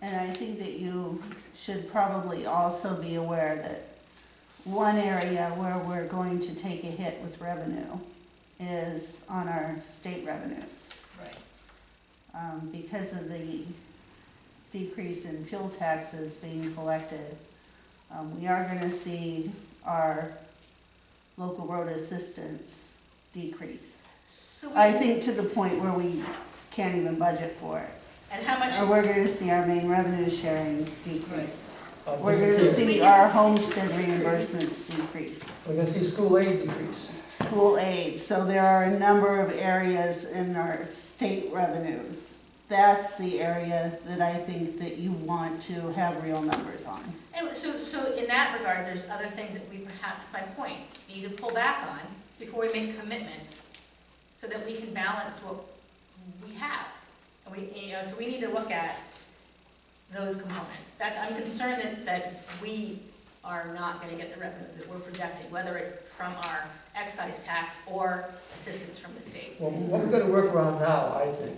And I think that you should probably also be aware that one area where we're going to take a hit with revenue is on our state revenues. Right. um, because of the decrease in fuel taxes being collected, um, we are gonna see our local road assistance decrease. So, I we- think to the point where we can't even budget for it, and how or much, we're gonna see our main revenue sharing decrease. Uh, We're this gonna is- see our homestead reimbursements decrease. We're gonna see school aid decrease. school aid, so there are a number of areas in our state revenues. That's the area that I think that you want to have real numbers on. and so, so in that regard, there's other things that we perhaps, that's my point, need to pull back on before we make commitments, so that we can balance what we have. And we, you know, so we need to look at those components. That's, I'm concerned that, that we are not gonna get the revenues that we're projecting, whether it's from our excise tax or assistance from the state. Well, what we're gonna work around now, I think,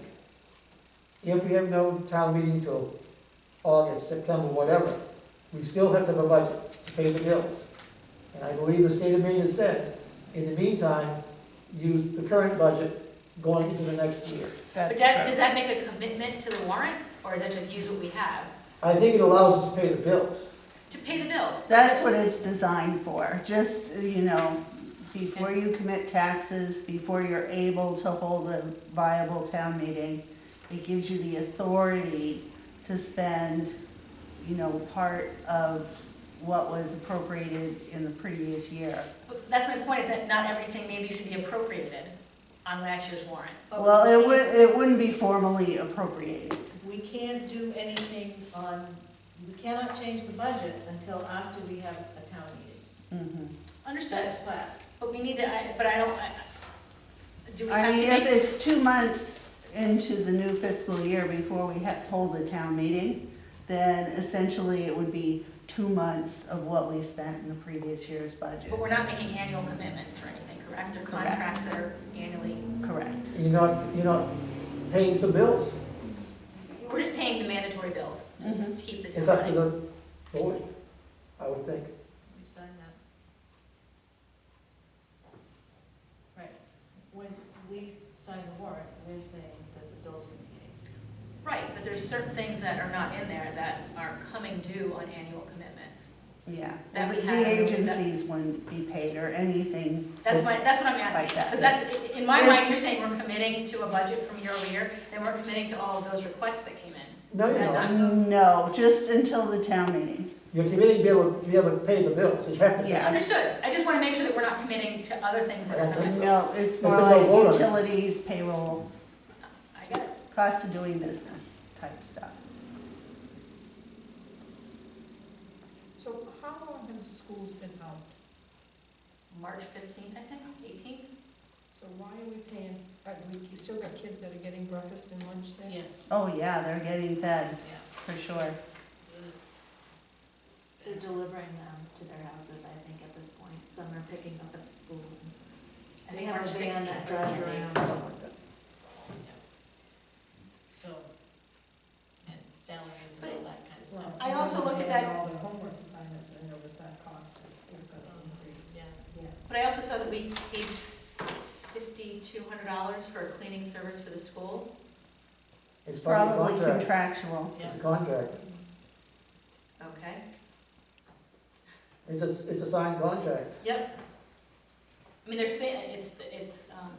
if we have no town meeting till August, September, whatever, we still have to have a budget to pay the bills. And I believe the state of Maine has said, in the meantime, use the current budget going into the next year. But That's, that, does that make a commitment to the warrant, or is that just use what we have I think it allows us to pay the bills. to pay the bills? that's what it's designed for, just, you know, before you commit taxes, before you're able to hold a viable town meeting, it gives you the authority to spend, you know, part of what was appropriated in the previous year. But That's my point, is that not everything maybe should be appropriated on last year's warrant. But Well, we it can't- would, it wouldn't be formally appropriated. We can't do anything on, we cannot change the budget until after we have a town meeting. Mm-hmm. Understood, That's flat. but we need to, I- but I don't, I- I- do we I have mean, if to make? it's two months into the new fiscal year before we ha- hold the town meeting, then essentially it would be two months of what we spent in the previous year's budget. But we're not making annual commitments for anything, correct? Or contracts that are annually, Correct. You're not, you're not paying some bills. we're just paying the mandatory bills to s- Mm-hmm. keep the It's town up to running. the board, I would think. We sign that. Right. When we sign the warrant, we're saying that the bills can be paid. Right, but there's certain things that are not in there that are coming due on annual commitments. Yeah. That The we the had- agencies wouldn't be paid or anything. That's my, that's what I'm asking, Like that. because that's, i- in my mind, you're saying we're committing to a budget from year over year, then we're committing to all of those requests that came in. No, you're Yeah, not. No, just until the town meeting. You're committing to be able, to be able to pay the bills, you have to. Yeah. Understood, I just want to make sure that we're not committing to other things that are coming. No, it's There's more been no vote like on it. utilities, payroll, I get it. cost of doing business type stuff. So how long have schools been out? March fifteenth, I think, eighteenth? So why are we paying, uh, we you still got kids that are getting breakfast and lunch there? Yes. Oh, yeah, they're getting fed, Yeah. for sure. They're delivering them to their houses, I think, at this point. Some are picking up at the school. I think March They have a van that sixteenth. drives around. So, and salaries and all that kind of Well, I also look at that- All their homework assignments and notice that cost is is gonna Um, increase. Yeah. But I also saw that we paid fifty-two hundred dollars for a cleaning service for the school. It's part of the Probably contract. contractual. It's a contract. Okay. It's a, it's a signed contract. Yep. I mean, there's, thi- it's, it's, um,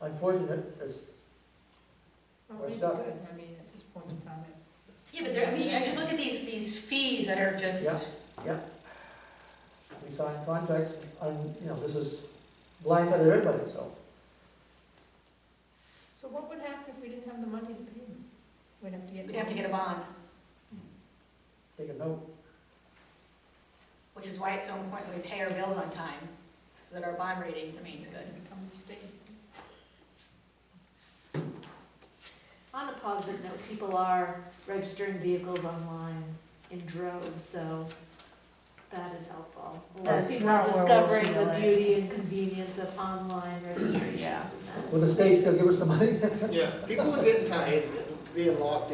Unfortunate, it's, Well, We're maybe stuck. good. I mean, at this point in time, it's. yeah, but there, I mean, I just look at these, these fees that are just, we sign contracts, and, you know, this is blindsided everybody, so. So what would happen if we didn't have the money to pay them? We'd have to get. we'd have to get a bond, Take a note, which is why it's so important that we pay our bills on time, so that our bond rating remains good. Become the state. On a positive note, people are registering vehicles online in droves, so that is helpful. A lot That's of people not are where we'll discovering feel the it. beauty and convenience of online registration. Yeah. will the state still give us the money? Yeah, people are getting tired of being locked in.